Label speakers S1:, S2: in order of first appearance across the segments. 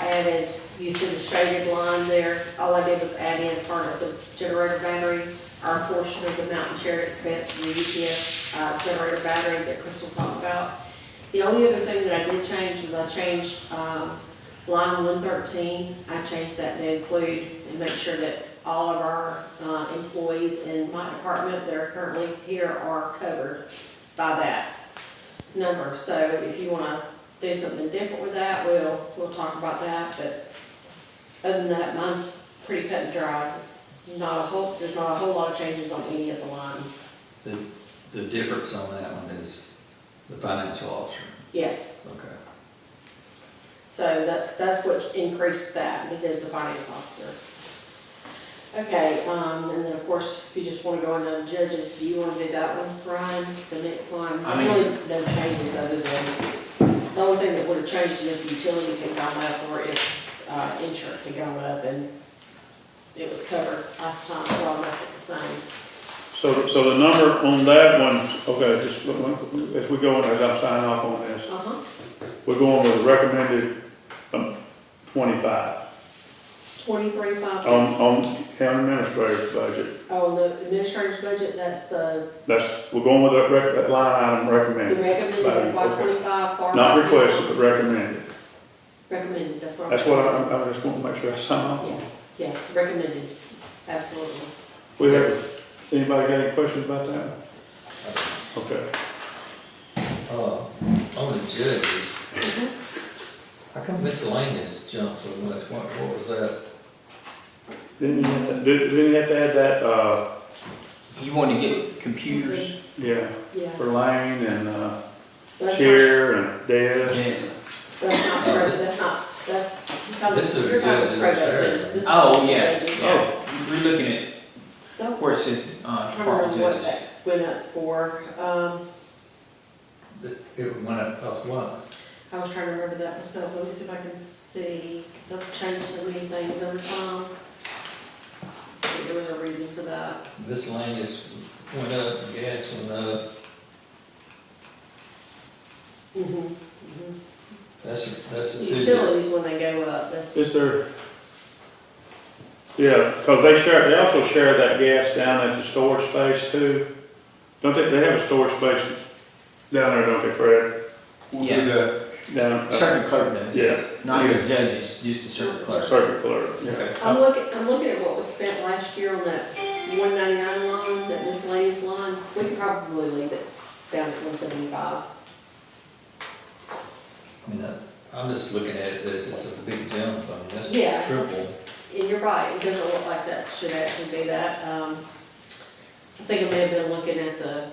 S1: added, you see the shaded line there, all I did was add in part of the generator battery, our portion of the mountain chair expense for the UPS uh, generator battery that Crystal talked about. The only other thing that I did change was I changed, um, line one thirteen, I changed that to include and make sure that all of our, uh, employees in my department that are currently here are covered by that number. So if you wanna do something different with that, we'll, we'll talk about that, but other than that, mine's pretty cut and dry. It's not a whole, there's not a whole lot of changes on any of the lines.
S2: The, the difference on that one is the financial officer,
S1: Yes,
S2: okay.
S1: so that's, that's what increased that, it is the finance officer. Okay, um, and then of course, if you just wanna go into judges, do you wanna do that one, Brian, the next line?
S3: I
S1: There's really no changes other than, the only thing that would've changed is if utilities had gone up or if, uh, insurance had gone up and it was covered last time, so I'll make it the same.
S4: So, so the number on that one, okay, just, look, look, as we go on, as I'm signing off on this,
S1: Uh-huh,
S4: we're going with the recommended, um, twenty-five
S1: twenty-three, five,
S4: on, on county administrator's budget.
S1: on the administrator's budget, that's the,
S4: That's, we're going with that rec, that line item
S1: the
S4: recommended,
S1: recommended by
S4: Okay.
S1: twenty-five, far.
S4: not requested, but recommended.
S1: Recommended, that's what I'm.
S4: That's what I, I I just want to make sure I sign off.
S1: Yes, yes, recommended, absolutely.
S4: We have, anybody got any questions about that? Okay,
S2: Uh, on the judges, how come miscellaneous jumped so much, what, what was that?
S4: didn't you have to, did- didn't you have to add that, uh,
S3: You want to get computers?
S4: yeah,
S1: Yeah.
S4: for lane and, uh,
S1: That's not,
S4: chair and desk?
S3: Yes.
S1: that's not, pro- that's not, that's, he's talking,
S2: This is a
S1: you're talking
S2: judge's
S1: pro
S2: upstairs.
S1: judges. This is
S3: Oh,
S1: just
S3: yeah,
S1: judges.
S3: yeah. We're looking at
S1: Don't,
S3: where it says,
S1: I'm
S3: uh,
S1: trying to remember
S3: department
S1: what
S3: judges.
S1: that went up for, um,
S2: That It went up, cost what?
S1: I was trying to remember that myself, let me see if I can see, cause I've changed so many things over time. So there was a reason for that,
S2: Miscellaneous went up, the gas went up,
S3: Mm-hmm.
S1: hmm
S2: that's, that's the two. that-
S1: Utilities when they go up, that's,
S4: Is there? Yeah, because they share, they also share that gas down at the storage space too. Don't they, they have a storage space down there, don't they, Fred?
S3: Yes,
S4: Down, uh,
S3: circuit clerk does, yes. Not the judges, just the circuit clerk.
S4: circuit clerk, yeah.
S2: Okay.
S1: I'm looking, I'm looking at what was spent last year on that one ninety-nine line, that miscellaneous line, we could probably leave it down at one seventy-five.
S2: I mean, I- I'm just looking at it as it's a big jump, I mean, that's
S1: Yeah.
S2: triple.
S1: And you're right, it doesn't look like that should actually be that. Um, I think I may have been looking at the,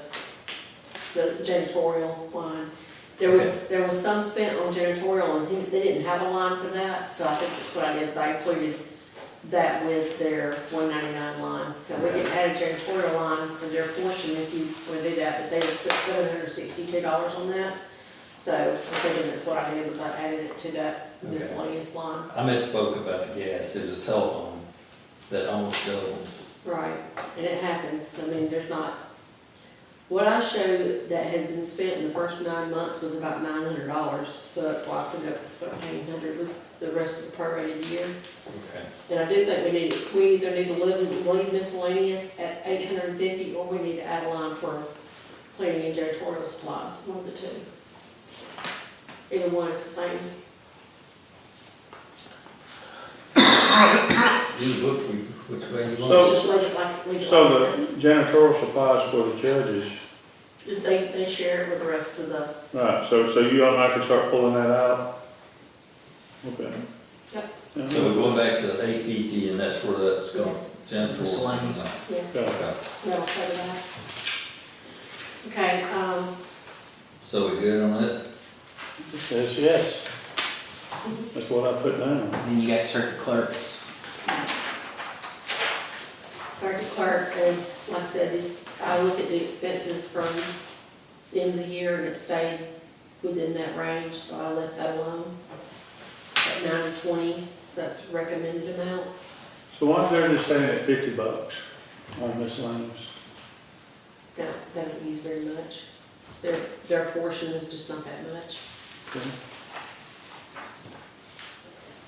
S1: the janitorial line. There was, there was some spent on janitorial and he- they didn't have a line for that, so I think that's what I did, is I included that with their one ninety-nine line. Now, we can add a janitorial line for their portion if you would do that, but they would spend seven hundred sixty-two dollars on that. So I'm thinking that's what I did, was I added it to that
S2: Okay.
S1: miscellaneous line.
S2: I misspoke about the gas, it was telephone that almost doubled.
S1: Right, and it happens, I mean, there's not, what I showed that had been spent in the first nine months was about nine hundred dollars, so that's why I put up thirteen hundred with the rest of the prorated year.
S2: Okay.
S1: And I do think we need, we either need to leave, leave miscellaneous at eight hundred and fifty, or we need to add a line for cleaning and janitorial supplies, one of the two. Either one is the same.
S2: You look which way you
S4: So-
S2: want.
S1: Let's just leave it like, leave it
S4: So
S1: like
S4: the
S1: this.
S4: janitorial supplies for the judges,
S1: They, they share it with the rest of the,
S4: right, so, so you automatically start pulling that out? Okay.
S1: Yep.
S2: So we're
S4: Yeah.
S2: going back to eight fifty, and that's where that's going,
S1: Yes.
S2: Jennifer.
S3: Miscellaneous.
S1: yes.
S4: Yeah.
S2: Okay.
S1: That'll cover that. Okay, um,
S2: So we good on this?
S4: It says yes. That's what I put down.
S3: Then you got circuit clerks.
S1: Sergeant Clark is, like I said, is, I look at the expenses from the end of the year and it stayed within that range, so I left that alone. At nine to twenty, so that's recommended amount.
S4: So why is there just saying at fifty bucks on miscellaneous?
S1: No, they don't use very much. Their, their portion is just not that much.
S4: Okay.